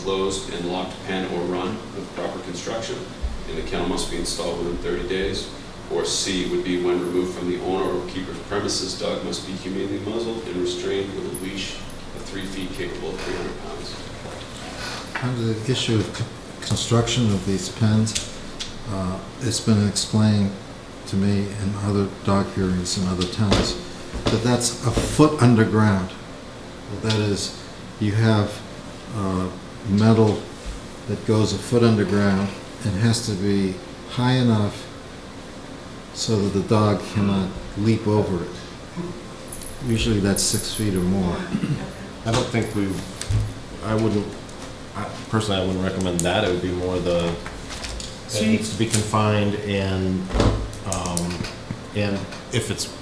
closed and locked pen or run with proper construction, and the kennel must be installed within 30 days. Or C would be when removed from the owner or keeper's premises, dog must be humanely muzzled and restrained with a leash of three feet capable of 300 pounds. Under the issue of c- construction of these pens, uh, it's been explained to me in other dog hearings in other towns that that's a foot underground. That is, you have uh, metal that goes a foot underground and has to be high enough so that the dog cannot leap over it. Usually that's six feet or more. I don't think we, I wouldn't, I- personally, I wouldn't recommend that. It would be more the, it See- needs to be confined and, um, and if it's,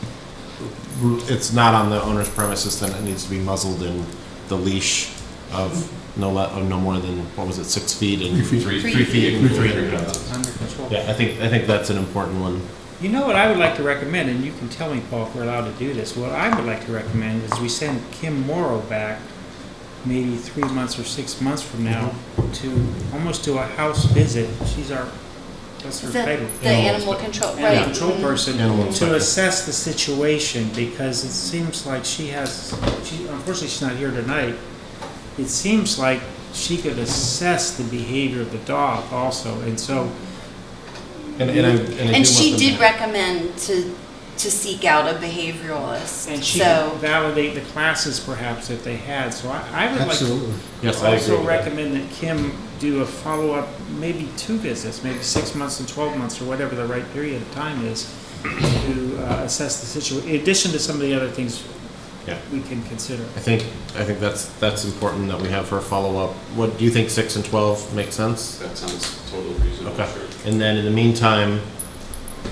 it's not on the owner's premises, then it needs to be muzzled in the leash of no le, of no more than, what was it, six feet and? Three feet. Three Three feet. feet. and Three feet. 300 pounds. under control. Yeah, I think, I think that's an important one. You know what I would like to recommend, and you can tell me, Paul, if we're allowed to do this, what I would like to recommend is we send Kim Morrow back maybe three months or six months from now to, almost do a house visit. She's our, that's her The, title. the animal control, right. animal control mhm. person Animal to inspector. assess the situation because it seems like she has, she, unfortunately, she's not here tonight. It seems like she could assess the behavior of the dog also, and so, And, and I, and I do And she want them- did recommend to, to seek out a behavioralist, and she could so. validate the classes perhaps if they had. So I, I would like to Absolutely. Yes, I agree also with that. recommend that Kim do a follow-up, maybe two visits, maybe six months and twelve months or whatever the right period of time is to uh, assess the situation, in addition to some of the other things Yeah. we can consider. I think, I think that's, that's important that we have her follow up. What, do you think six and twelve make sense? That sounds totally reasonable, Okay. sure. And then in the meantime,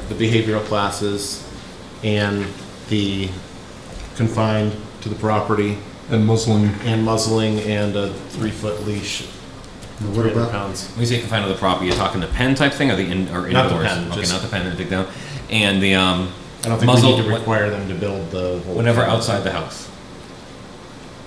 the behavioral classes and the confined to the property And muzzling, and muzzling and a three foot leash, Now, what three hundred about pounds. When you say confined to the property, you're talking the pen type thing or the in, or Not the indoors? pen, okay, just- not the pen, the big down. And the um, I don't think we muzzle need to what- require them to build the whole. whenever outside the house.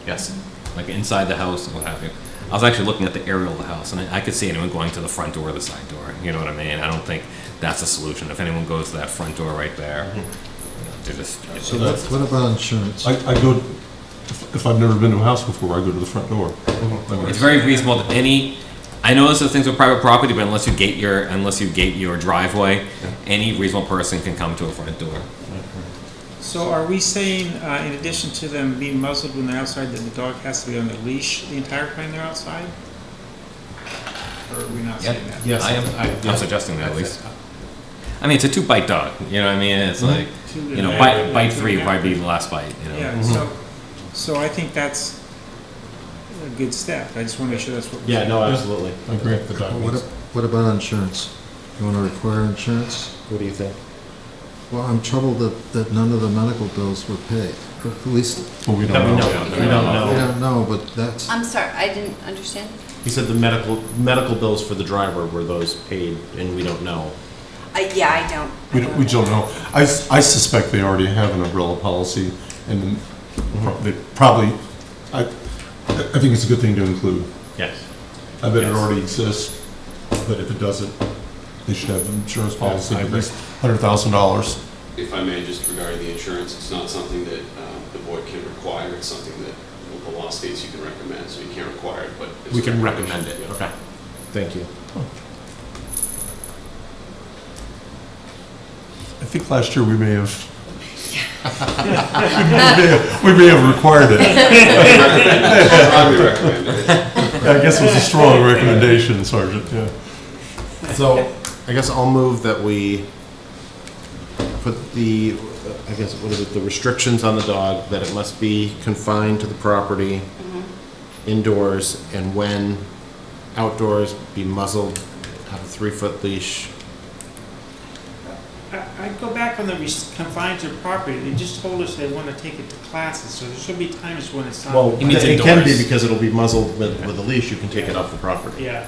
Yes, like inside the house and what have you. I was actually looking at the aerial of the house, and I, I could see anyone going to the front door or the side door. You know what I mean? I don't think that's a solution. If anyone goes to that front door right there, you know, Mm-hmm. they're just. So what, what about insurance? I, I go, if if I've never been to a house before, I go to the front door. It's very reasonable that any, I know this is things with private property, but unless you gate your, unless you gate your driveway, any reasonable person can come to a front door. So are we saying, uh, in addition to them being muzzled when they're outside, that the dog has to be on the leash the entire time they're outside? Or are we not saying that? Yes, I I- am, yeah. I'm suggesting that at That's least. I mean, it's a two bite dog, you know what I mean? It's Mm-hmm. like, Two you know, and- bite, bite three would probably be the last bite, you know? Yeah, so, so I think that's a good step. I just want to make sure that's what. we're Yeah, saying. no, absolutely. I agree. The Well, dog What, needs- ab- what about insurance? You want to require insurance? What do you think? Well, I'm troubled that, that none of the medical bills were paid, or at least, Well, we That we don't know. know, we don't I know. don't know, but that's, I'm sorry, I didn't understand. He said the medical, medical bills for the driver were those paid and we don't know. Uh, yeah, I don't. I We don't, we don't know. I, s- I suspect they already have an umbrella policy and pro- they probably, I, I think it's a good thing to include. Yes. I bet it Yes. already exists, but if it doesn't, they should have an insurance policy I of at agree. least hundred thousand dollars. If I may, just regarding the insurance, it's not something that um, the board can require, it's something that the law states you can recommend, so you can't require it, but. it's We can recommended. recommend it, Yeah. okay. Thank you. I think last year we may have. We may have- We may have required it. Strongly recommend it. I guess it was a strong recommendation, Sergeant, yeah. So, I guess I'll move that we put the, I guess, what is it, the restrictions on the dog, that it must be confined to the property, indoors, and when outdoors, be muzzled, have a three-foot leash. I, I'd go back on the res- confined to property. They just told us they want to take it to classes, so there should be times when it's not. He means It can be indoors. because it'll be muzzled with, with a leash, you can take it off the property. Yeah.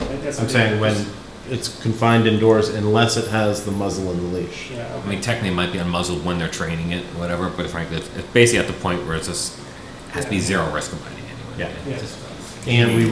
That- that's I'm what saying they- when it's confined indoors unless it has the muzzle and the leash. Yeah, I okay. mean, technically, it might be unmuzzled when they're training it, whatever, but frankly, it's it's basically at the point where it's just, has to be zero risk of biting anyway. Yeah. Yeah. And we